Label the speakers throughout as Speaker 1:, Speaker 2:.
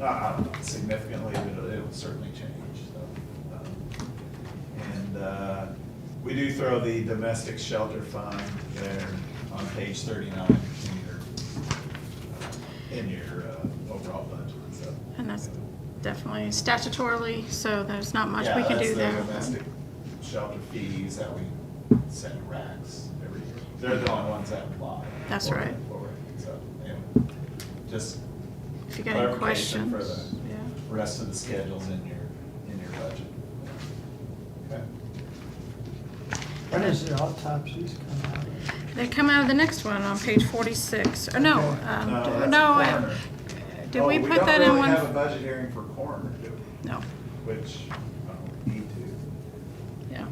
Speaker 1: uh, significantly, but it'll certainly change, so. um, And uh, we do throw the domestic shelter fund there on page thirty-nine in your, uh, in your uh, overall budget, so.
Speaker 2: And that's definitely statutorily, so there's not much
Speaker 1: Yeah,
Speaker 2: we can
Speaker 1: that's
Speaker 2: do
Speaker 1: the
Speaker 2: there.
Speaker 1: Domestic shelter fees that we send racks every year. They're the only ones that apply.
Speaker 2: That's
Speaker 1: for-
Speaker 2: right.
Speaker 1: for it, So, anyway, just
Speaker 2: If you got any
Speaker 1: clarification for
Speaker 2: questions,
Speaker 1: the-
Speaker 2: yeah.
Speaker 1: rest of the schedules in your, in your budget. Okay.
Speaker 3: When is the autopsies come out?
Speaker 2: They come out of the next one on page forty-six, or no,
Speaker 3: Okay.
Speaker 2: um,
Speaker 1: No,
Speaker 2: d-
Speaker 1: that's
Speaker 2: no,
Speaker 1: a
Speaker 2: I-
Speaker 1: coroner.
Speaker 2: did
Speaker 1: Oh,
Speaker 2: we put that in one?
Speaker 1: don't really have a budget hearing for coroner, do we?
Speaker 2: No,
Speaker 1: Which, I don't need to.
Speaker 2: yeah,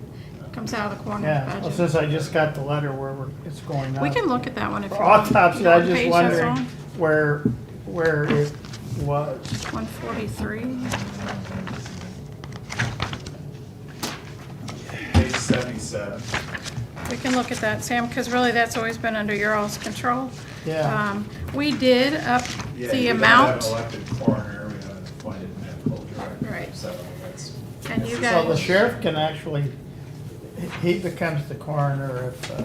Speaker 2: comes out of the coroner's
Speaker 3: Yeah, well, since
Speaker 2: budget.
Speaker 3: I just got the letter where we're, it's going up.
Speaker 2: We can look at that one if you.
Speaker 3: For
Speaker 2: want.
Speaker 3: autopsy,
Speaker 2: You know
Speaker 3: I
Speaker 2: what
Speaker 3: just
Speaker 2: page that's
Speaker 3: wondering
Speaker 2: on?
Speaker 3: where, where it was.
Speaker 2: One forty-three,
Speaker 1: Page seventy-seven.
Speaker 2: we can look at that, Sam, because really, that's always been under your all's control.
Speaker 3: Yeah.
Speaker 2: Um, We did up
Speaker 1: Yeah,
Speaker 2: the
Speaker 1: we don't
Speaker 2: amount.
Speaker 1: have an elected coroner, we have an appointed medical director.
Speaker 2: Right.
Speaker 1: So that's.
Speaker 2: And you
Speaker 1: that's-
Speaker 2: guys-
Speaker 3: So the sheriff can actually, he becomes the coroner if, uh,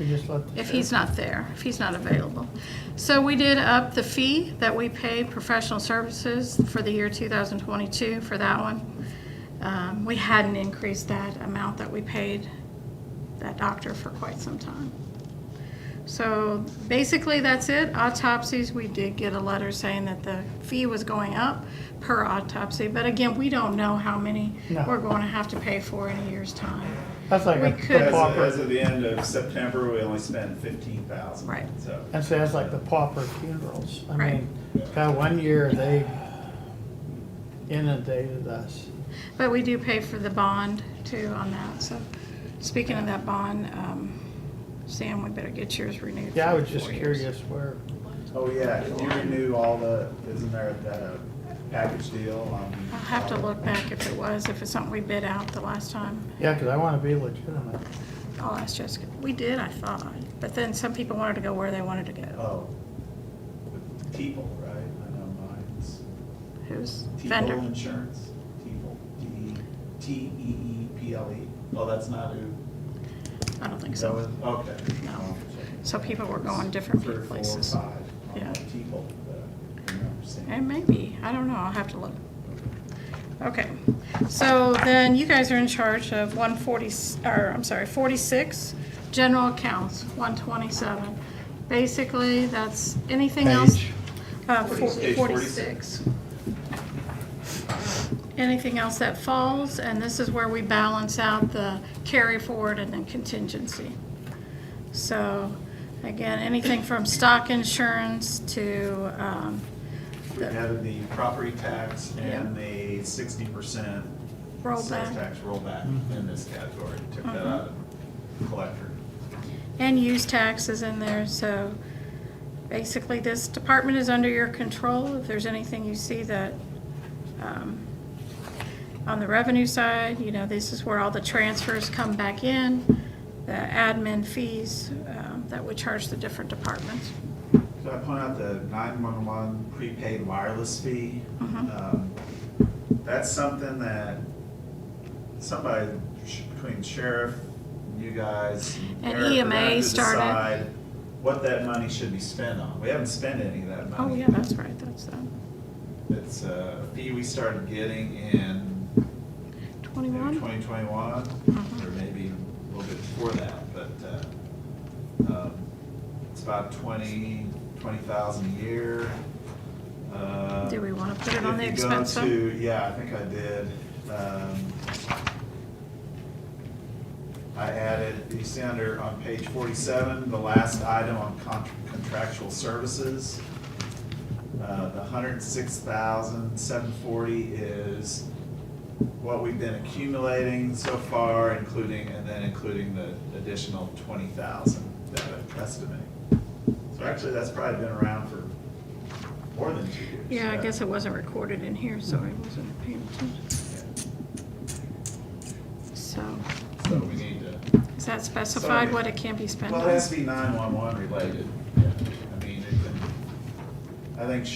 Speaker 3: we just let the
Speaker 2: if he's
Speaker 3: sheriff-
Speaker 2: not there, if he's not available. So we did up the fee that we pay professional services for the year 2022 for that one. Um, We hadn't increased that amount that we paid that doctor for quite some time. So basically, that's it. Autopsies, we did get a letter saying that the fee was going up per autopsy. But again, we don't know how many
Speaker 3: No.
Speaker 2: we're going to have to pay for in a year's time.
Speaker 3: That's like
Speaker 2: we
Speaker 3: a
Speaker 2: could-
Speaker 3: the
Speaker 1: As of, as
Speaker 3: pauper,
Speaker 1: of the end of September, we only spent fifteen thousand.
Speaker 2: Right.
Speaker 1: So,
Speaker 3: and so that's like the pauper funerals. I
Speaker 2: Right.
Speaker 3: mean, God, one year they inundated us.
Speaker 2: But we do pay for the bond too on that, so speaking of that bond, um, Sam, we better get yours renewed.
Speaker 3: Yeah, I
Speaker 2: for
Speaker 3: was just
Speaker 2: four years.
Speaker 3: curious where,
Speaker 1: oh yeah, you renew all the, isn't there that uh, package deal on?
Speaker 2: I'll have to look back if it was, if it's something we bid out the last time.
Speaker 3: yeah, because I want to be legitimate.
Speaker 2: I'll ask Jessica. We did, I thought, but then some people wanted to go where they wanted to go.
Speaker 1: Oh, with T-Pole, right? I know mine's
Speaker 2: Who's
Speaker 1: T-Pole
Speaker 2: vendor?
Speaker 1: Insurance, T-Pole, T, T E E P L E. Oh, that's not who?
Speaker 2: I don't think
Speaker 1: Is that
Speaker 2: so.
Speaker 1: what- Okay.
Speaker 2: No. So people were going different
Speaker 1: Three, four,
Speaker 2: places.
Speaker 1: five on
Speaker 2: Yeah.
Speaker 1: that T-Pole, but I remember seeing.
Speaker 2: It may be, I don't know, I'll have to look. Okay, so then you guys are in charge of one forty, or, I'm sorry, forty-six, general accounts, one twenty-seven. Basically, that's anything else.
Speaker 3: Page.
Speaker 2: Uh,
Speaker 1: Page 46.
Speaker 2: forty-six. Anything else that falls, and this is where we balance out the carry forward and then contingency. So, again, anything from stock insurance to, um,
Speaker 1: We added the property tax and the sixty percent sales
Speaker 2: rollback.
Speaker 1: tax rollback in this category. Took that out of collector.
Speaker 2: And use taxes in there, so basically this department is under your control. If there's anything you see that, um, on the revenue side, you know, this is where all the transfers come back in, the admin fees, um, that we charge the different departments.
Speaker 1: So I point out the nine-one-one prepaid wireless fee.
Speaker 2: Mhm.
Speaker 1: Um, That's something that somebody sh- between sheriff, you guys.
Speaker 2: And
Speaker 1: Eric, we're gonna have
Speaker 2: EMA
Speaker 1: to
Speaker 2: started.
Speaker 1: decide What that money should be spent on. We haven't spent any of that money.
Speaker 2: Oh, yeah, that's right, that's, uh,
Speaker 1: It's a fee we started getting in maybe
Speaker 2: twenty-one?
Speaker 1: 2021,
Speaker 2: Mhm.
Speaker 1: or maybe a little bit before that, but uh, um, it's about 20, 20,000 a year. Uh,
Speaker 2: Do we wanna put it on
Speaker 1: if
Speaker 2: the
Speaker 1: you go
Speaker 2: expense side?
Speaker 1: to- Yeah, I think I did. Um, I added, you see under, on page 47, the last item on con- contractual services. Uh, The 106,740 is what we've been accumulating so far, including, and then including the additional 20,000 that I'm estimating. So actually, that's probably been around for more than two years.
Speaker 2: Yeah, I
Speaker 1: right?
Speaker 2: guess it wasn't recorded in here, so I wasn't paying attention. So,
Speaker 1: So we need to,
Speaker 2: is that specified what it can be spent on?
Speaker 1: well, it has to be 911 related. Yeah. I mean, it can, I think